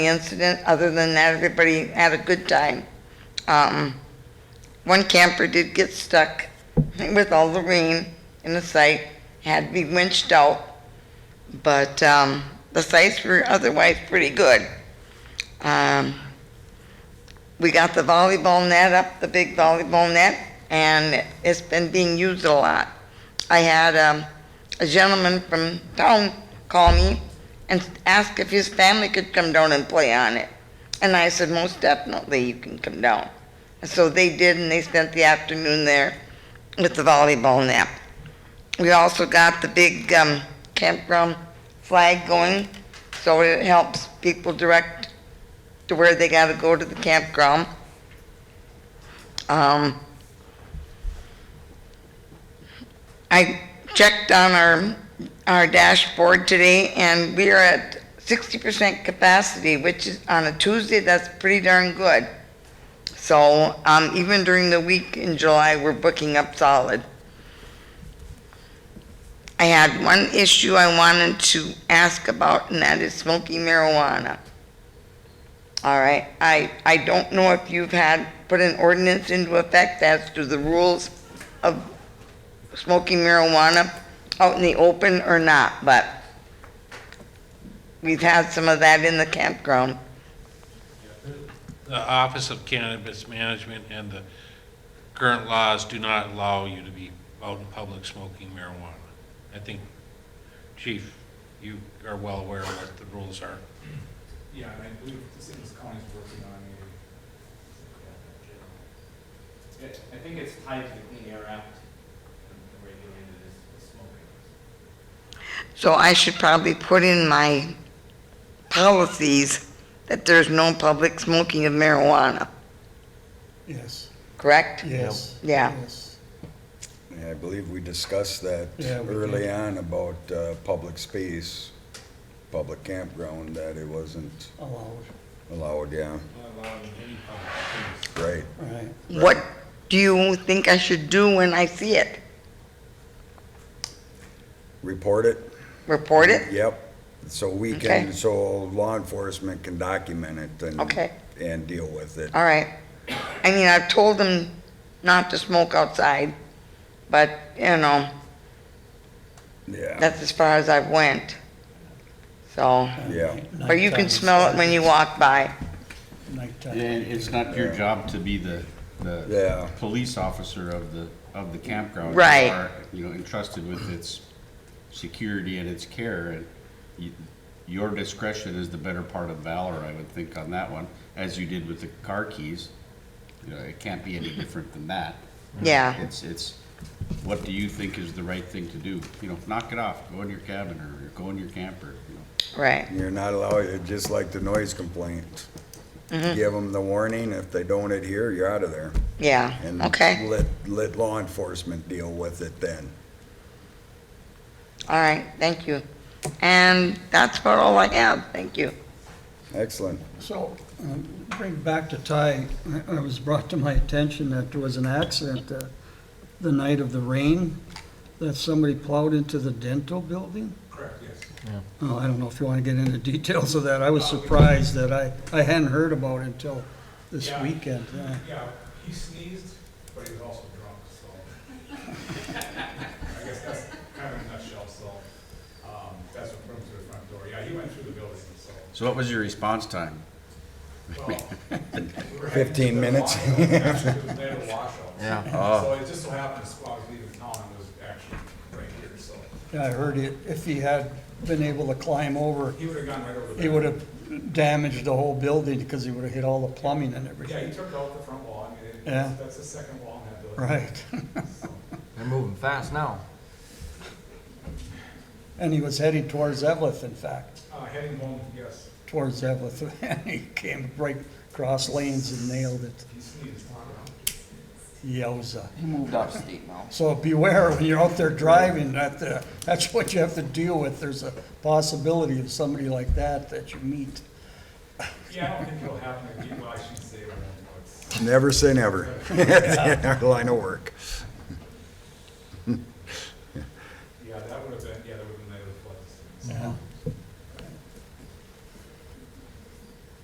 incident. Other than that, everybody had a good time. Um, one camper did get stuck with all the rain in the site, had to be winched out, but um, the sites were otherwise pretty good. Um, we got the volleyball net up, the big volleyball net, and it's been being used a lot. I had um, a gentleman from town call me and ask if his family could come down and play on it. And I said, most definitely you can come down. And so they did, and they spent the afternoon there with the volleyball net. We also got the big um, campground flag going, so it helps people direct to where they gotta go to the campground. Um, I checked on our, our dashboard today, and we are at sixty percent capacity, which is, on a Tuesday, that's pretty darn good. So, um, even during the week in July, we're booking up solid. I had one issue I wanted to ask about, and that is smoking marijuana. All right, I, I don't know if you've had, put an ordinance into effect as to the rules of smoking marijuana out in the open or not, but we've had some of that in the campground. The Office of Cannabis Management and the current laws do not allow you to be out in public smoking marijuana. I think, Chief, you are well aware of what the rules are. Yeah, and I believe the city of County's working on a. It- I think it's tied to the Clean Air Act, and regulated as smoking. So I should probably put in my policies that there's no public smoking of marijuana, Yes, correct? yes. Yeah. yes. Yeah, I believe we discussed that Yeah, we early on about uh, public space, public campground, that it wasn't Allowed, allowed, yeah, Not allowed in any public space. right. right. What do you think I should do when I see it? Report it? Report it? Yep. So we Okay. can, so law enforcement can document it and. Okay. And deal with it. All right. I mean, I've told them not to smoke outside, but, you know, Yeah, that's as far as I've went. So, yeah. but you can smell it when you walk by. Nighttime. Yeah, and it's not your job to be the, Yeah. the police officer of the, of the campground. You Right. are, You know, entrusted with its security and its care, and you- your discretion is the better part of valor, I would think, on that one, as you did with the car keys. You know, it can't be any different than that. Yeah, It's, it's, what do you think is the right thing to do? You know, knock it off, go in your cabin, or go in your camper, you know. right. You're not allowed, it's just like the noise complaint. Mm-hmm. Give them the warning, if they don't adhere, you're out of there. Yeah, And okay, Let, let law enforcement deal with it then. all right, thank you. And that's about all I have, thank you. Excellent. So, um, bring back to Ty, I- I was brought to my attention that there was an accident uh, the night of the rain, that somebody plowed into the dental building? Correct, yes. Oh, I don't know if you want to get into details of that. I was surprised that I, I hadn't heard about it until this Yeah. weekend. yeah. Yeah, he sneezed, but he was also drunk, so. I guess that's kind of a nutshell, so, um, that's what put him through the front door. Yeah, he went through the building, so. So what was your response time? well, we were heading to 15 the minutes. washout. We actually They had a washout. Yeah. So it just so happens, while I was leaving town, it was actually right here, so. Yeah, I heard it, if he had been able to climb over, He would have gone right over there. he would have damaged the whole building because he would have hit all the plumbing and Yeah, he everything. took out the front wall, I mean, it- Yeah. that's the second wall in that building. Right. They're moving fast now. And he was heading towards Evelyn, in fact, Uh, heading home, yes, towards Evelyn. And he came right across lanes and nailed it. he sneezed. Yowza. He moved up state now. So beware when you're out there driving, that, uh, that's what you have to deal with. There's a possibility of somebody like that that you meet. Yeah, I don't think it'll happen again, well, I shouldn't say it won't, but. Never say never in our line of work.